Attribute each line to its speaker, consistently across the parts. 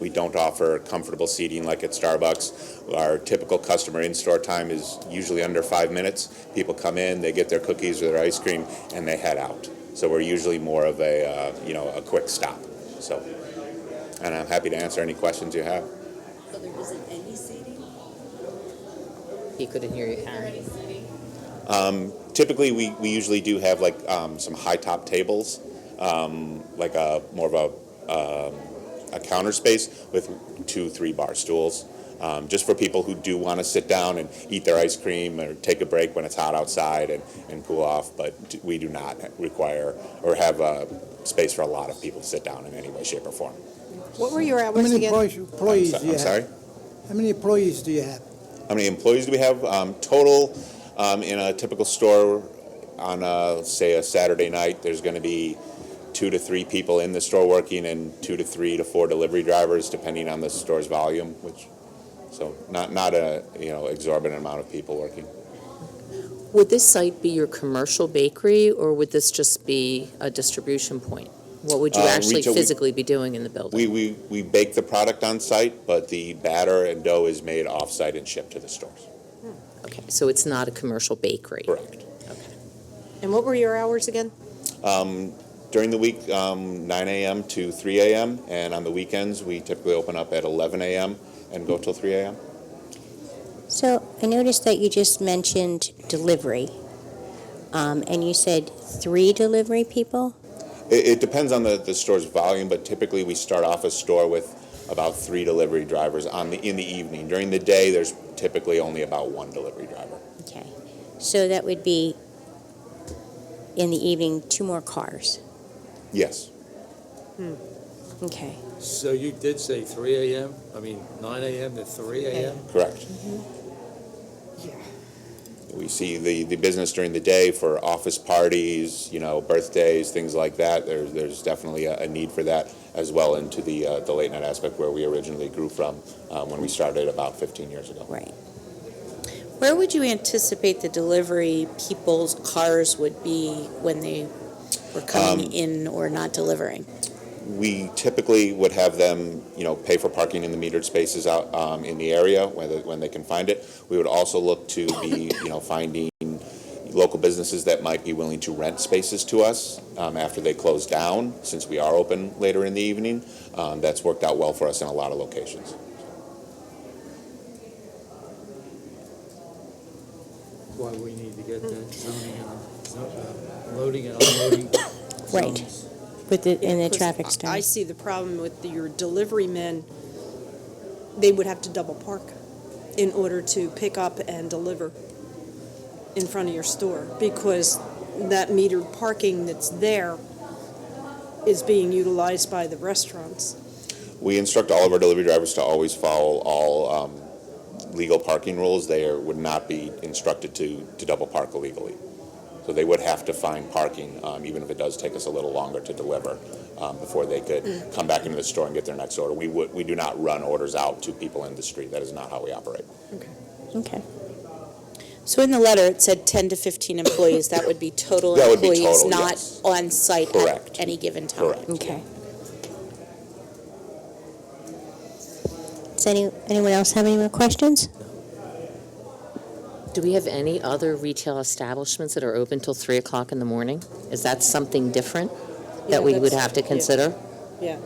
Speaker 1: We don't offer comfortable seating like at Starbucks. Our typical customer in-store time is usually under five minutes. People come in, they get their cookies or their ice cream, and they head out. So we're usually more of a, uh, you know, a quick stop. So, and I'm happy to answer any questions you have.
Speaker 2: So there isn't any seating?
Speaker 3: He couldn't hear you, Aaron.
Speaker 2: any seating?
Speaker 1: typically we, we usually do have like um, some high top tables um, like a more of a, um, a counter space with two three bar stools um, just for people who do want to sit down and eat their ice cream or take a break when it's hot outside and, and cool off but d- we do not require or have uh space for a lot of people to sit down in any way shape or form
Speaker 4: What were your
Speaker 5: How
Speaker 4: hours
Speaker 5: many
Speaker 4: again?
Speaker 5: employees, employees
Speaker 1: I'm, so-
Speaker 5: do you
Speaker 1: I'm
Speaker 5: have?
Speaker 1: sorry
Speaker 5: How many employees do you have?
Speaker 1: How many employees do we have? Um, total um, in a typical store on a, say a Saturday night, there's going to be two to three people in the store working and two to three to four delivery drivers, depending on the store's volume. Which, so not not a you know exorbitant amount of people working.
Speaker 3: Would this site be your commercial bakery, or would this just be a distribution point? What would you
Speaker 1: Uh,
Speaker 3: actually
Speaker 1: retail, we-
Speaker 3: physically be doing in the building?
Speaker 1: We, we we bake the product on site, but the batter and dough is made off site and shipped to the stores.
Speaker 3: Okay, so it's not a commercial bakery?
Speaker 1: Correct.
Speaker 4: And what were your hours again?
Speaker 1: During the week, um, 9 a.m. to 3 a.m., and on the weekends, we typically open up at 11 a.m. and go till 3 a.m.
Speaker 6: So I noticed that you just mentioned delivery, um, and you said three delivery people?
Speaker 1: It, it depends on the, the store's volume, but typically we start off a store with about three delivery drivers on the in the evening. During the day, there's typically only about one delivery driver.
Speaker 6: Okay. So that would be, in the evening, two more cars?
Speaker 1: Yes,
Speaker 6: Okay.
Speaker 7: So you did say three AM, I mean, nine AM to three AM?
Speaker 1: correct. We see the, the business during the day for office parties, you know, birthdays, things like that. There's there's definitely a, a need for that as well into the uh, the late night aspect where we originally grew from uh, when we started about 15 years ago.
Speaker 6: Right.
Speaker 8: Where would you anticipate the delivery people's cars would be when they were coming in or not delivering?
Speaker 1: we typically would have them, you know, pay for parking in the metered spaces out um, in the area when they, when they can find it. We would also look to be, you know, finding local businesses that might be willing to rent spaces to us um, after they close down, since we are open later in the evening. Um, that's worked out well for us in a lot of locations.
Speaker 7: Why we need to get that zoning and, zo- uh, loading and unloading.
Speaker 6: Right.
Speaker 7: zones.
Speaker 6: With the, in the
Speaker 4: 'Cause
Speaker 6: traffic
Speaker 4: I- I
Speaker 6: study?
Speaker 4: see the problem with the- your delivery men, they would have to double park in order to pick up and deliver in front of your store because that metered parking that's there is being utilized by the restaurants.
Speaker 1: We instruct all of our delivery drivers to always follow all um, legal parking rules. They are, would not be instructed to, to double park illegally. So they would have to find parking, um, even if it does take us a little longer to deliver, um, before they could
Speaker 6: Mm.
Speaker 1: come back into the store and get their next order. We would, we do not run orders out to people in the street. That is not how we operate.
Speaker 6: Okay.
Speaker 8: So in the letter, it said 10 to 15 employees. That would be total
Speaker 1: That would be
Speaker 8: employees,
Speaker 1: total,
Speaker 8: not
Speaker 1: yes.
Speaker 8: on-site
Speaker 1: Correct.
Speaker 8: at any given time.
Speaker 1: Correct.
Speaker 6: Okay. Does any, anyone else have any more questions?
Speaker 3: Do we have any other retail establishments that are open till 3 o'clock in the morning? Is that something different
Speaker 4: Yeah,
Speaker 3: that we would
Speaker 4: that's-
Speaker 3: have to
Speaker 4: yeah.
Speaker 3: consider?
Speaker 4: Yeah.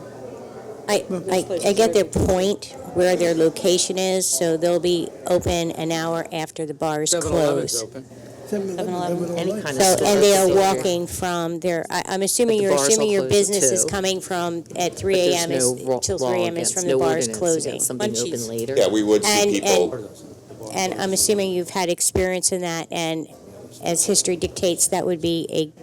Speaker 6: I, I, I get their point where their location is, so they'll be open an hour after the bars close.
Speaker 7: 7-Eleven's open.
Speaker 3: Any
Speaker 5: Any
Speaker 3: kind of
Speaker 6: So,
Speaker 3: store
Speaker 6: and they are
Speaker 3: facility.
Speaker 6: walking from their, I- I'm
Speaker 3: But
Speaker 6: assuming
Speaker 3: the
Speaker 6: you're
Speaker 3: bars all
Speaker 6: assuming your
Speaker 3: close at
Speaker 6: business is
Speaker 3: 2.
Speaker 6: coming from, at
Speaker 3: But
Speaker 6: 3
Speaker 3: there's
Speaker 6: AM is,
Speaker 3: no ro-
Speaker 6: till
Speaker 3: law
Speaker 6: 3 AM is
Speaker 3: against-
Speaker 6: from
Speaker 3: no
Speaker 6: the bars
Speaker 3: ordinance against
Speaker 6: closing.
Speaker 3: Something open
Speaker 8: Munchies.
Speaker 3: later?
Speaker 1: Yeah, we would see
Speaker 6: And-
Speaker 1: people,
Speaker 6: and-
Speaker 7: Or doesn't it? The bar
Speaker 6: And I'm
Speaker 7: closes.
Speaker 6: assuming you've had experience in that, and as history dictates, that would be a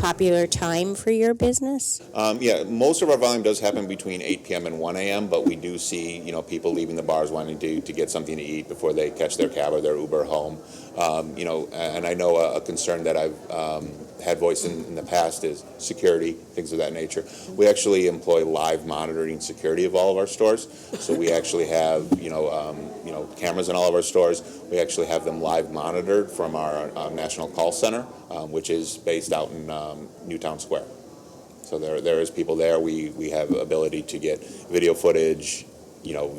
Speaker 6: popular time for your business?
Speaker 1: um, yeah, most of our volume does happen between eight PM and one AM, but we do see, you know, people leaving the bars wanting to, to get something to eat before they catch their cab or their Uber home. Um, you know, and I know a a concern that I've um, had voiced in, in the past is security, things of that nature. We actually employ live monitoring security of all of our stores. So we actually have, you know, um, you know, cameras in all of our stores. We actually have them live monitored from our uh, national call center, um, which is based out in um, Newtown Square. So there, there is people there. We, we have ability to get video footage, you know,